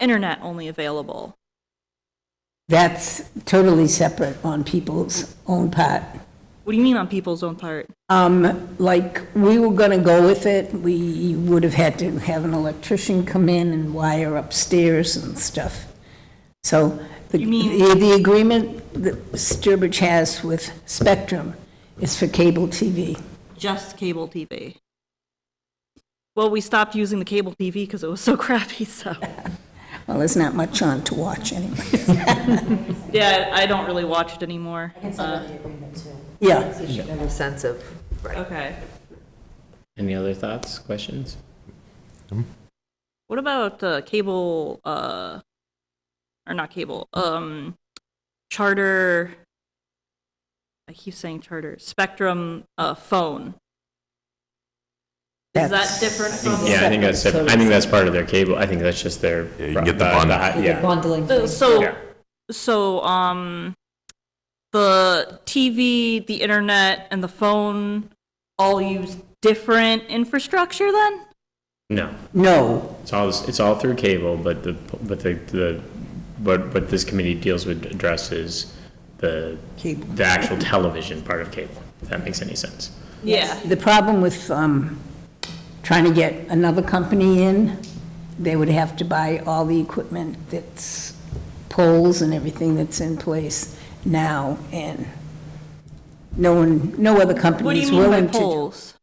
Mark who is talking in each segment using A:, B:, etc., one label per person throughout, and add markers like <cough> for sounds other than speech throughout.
A: internet only available.
B: That's totally separate on people's own part.
A: What do you mean on people's own part?
B: Um, like, we were gonna go with it, we would have had to have an electrician come in and wire upstairs and stuff. So, the,
A: You mean-
B: the the agreement that Sturbridge has with Spectrum is for cable TV.
A: Just cable TV. Well, we stopped using the cable TV because it was so <laughs> crappy, so.
B: Well, there's not much on to watch anyway.
A: Yeah, I don't really watch it anymore.
B: Yeah,
C: a sense of, right.
A: Okay.
D: Any other thoughts, questions?
A: What about uh, cable, uh, or not cable, um, charter, I keep saying charter, Spectrum, uh, phone? Is that
B: That's-
A: different from?
D: Yeah, I think that's,
C: Separate,
D: I think that's part of their cable, I think that's just their.
E: Yeah, you can get the
D: broad-
E: bundle.
D: hi-
C: The
D: Yeah,
C: bundling
A: So-
C: thing.
A: So,
D: Yeah.
A: so, um, the TV, the internet, and the phone all use different infrastructure then?
D: no,
B: no,
D: it's all, it's all through cable, but the, but the, the, what, what this committee deals with addresses the,
B: Cable.
D: the actual television part of cable, if that makes any sense.
A: Yeah.
B: The problem with um, trying to get another company in, they would have to buy all the equipment that's poles and everything that's in place now, and no one, no other
A: What do
B: company
A: you
B: is
A: mean by
B: willing to. do-
A: poles?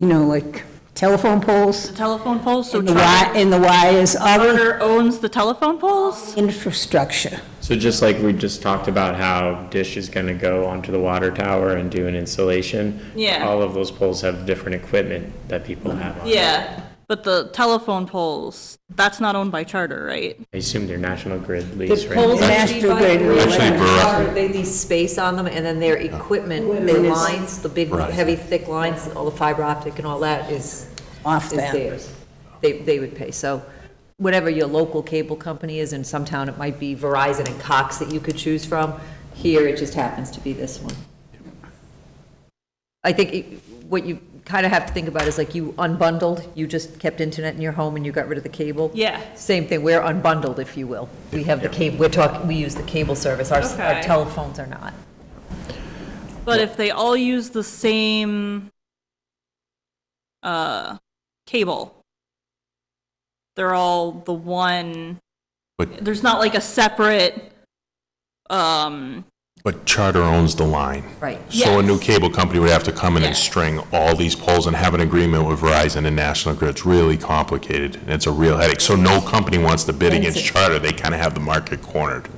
B: You know, like telephone poles,
A: The telephone poles, so
B: and the
A: Charter
B: wi- and the wires, all the
A: Charter owns the telephone poles?
B: infrastructure.
D: So just like we just talked about how Dish is gonna go onto the water tower and do an installation.
A: Yeah.
D: All of those poles have different equipment that people have on.
A: Yeah, but the telephone poles, that's not owned by Charter, right?
D: I assume they're National Grid lease,
C: The
D: right?
C: poles that
B: Master
C: we buy,
B: grid.
C: we
B: Actually,
C: rent
E: we're
C: out,
E: up-
C: They lease space on them, and then their equipment, their
B: Equipment is-
C: lines, the big,
E: Right.
C: heavy, thick lines, all the fiber optic and all that is,
B: Off
C: is
B: them.
C: theirs. They, they would pay, so whatever your local cable company is, in some town, it might be Verizon and Cox that you could choose from. Here, it just happens to be this one. I think it- what you kind of have to think about is like you unbundled, you just kept internet in your home and you got rid of the cable.
A: Yeah.
C: Same thing, we're unbundled, if you will. We have the cable, we're talking, we use the cable service, our
A: Okay.
C: our telephones are not.
A: But if they all use the same uh, cable, they're all the one.
E: But-
A: there's not like a separate. Um,
E: But Charter owns the line.
C: Right.
E: So a new
A: Yes.
E: cable company would have to come in and
A: Yeah.
E: string all these poles and have an agreement with Verizon and National Grid. It's really complicated, and it's a real headache. So no company wants to bid against Charter. They kind of have the market cornered.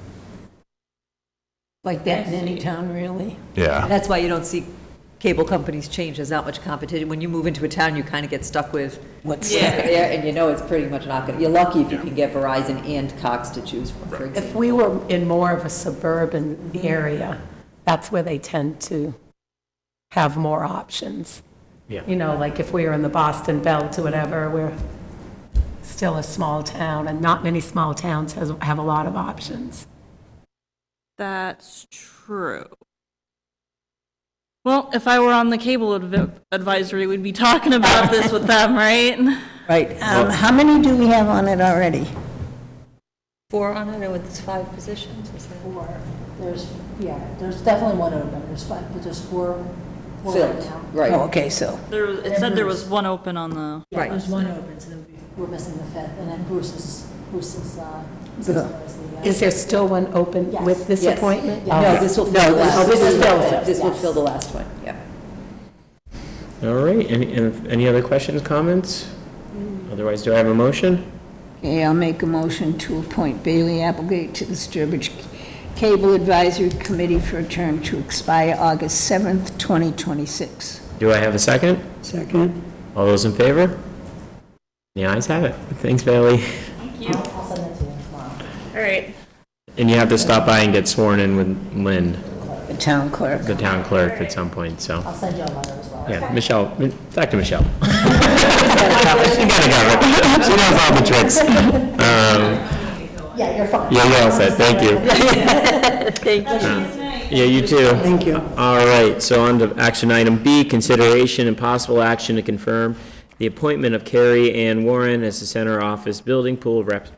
B: Like that in any town, really?
E: Yeah.
C: That's why you don't see cable companies change, there's not much competition. When you move into a town, you kind of get stuck with
B: What's
A: Yeah.
B: that?
C: there, and you know it's pretty much not going, to you're lucky if you can get Verizon and Cox to choose from, for example.
F: If we were in more of a suburban area, that's where they tend to have more options.
D: Yeah.
F: You know, like if we were in the Boston Belt or whatever, we're still a small town, and not many small towns has, have a lot of options.
A: that's true. Well, if I were on the cable adv- advisory, we'd be talking about this with them, right?
B: Right. Um, How many do we have on it already?
C: Four on it, or it's five positions, is that?
G: four. There's, yeah, there's definitely one open. There's five, but there's four, four right now.
B: Oh,
C: Right,
B: okay, so,
A: There, it said there was one open on the.
G: Yeah,
C: right.
G: There's one open, so there'll be- we're missing the fifth, and then Bruce is, Bruce is, uh, is
B: The-
G: the, uh,
F: Is there still one open with this
C: Yes.
F: appointment?
C: No, this will
F: No,
C: fill the last.
F: oh, this is filled.
C: This will fill the last one, yeah.
D: All right, any, any other questions, comments? Otherwise, do I have a motion?
B: okay, I'll make a motion to appoint Bailey Applegate to the Sturbridge Cable Advisory Committee for a term to expire August 7th, 2026.
D: Do I have a second?
B: Second.
D: All those in favor? The ayes have it. Thanks, Bailey.
A: All right.
D: And you have to stop by and get sworn in with Lynn,
B: The town clerk.
D: the town clerk, at some point, so.
G: I'll send you a letter as well.
D: Yeah, Michelle, Mi-
A: <laughs>
D: Dr. Michelle. She got it covered. She knows all the tricks. Um,
G: Yeah, you're fine.
D: Yeah, you're all set, thank <laughs> you. Yeah, you too. Thank you. All right, so on to action item B, consideration and possible action to confirm the appointment of Carrie Ann Warren as the center office building pool rep-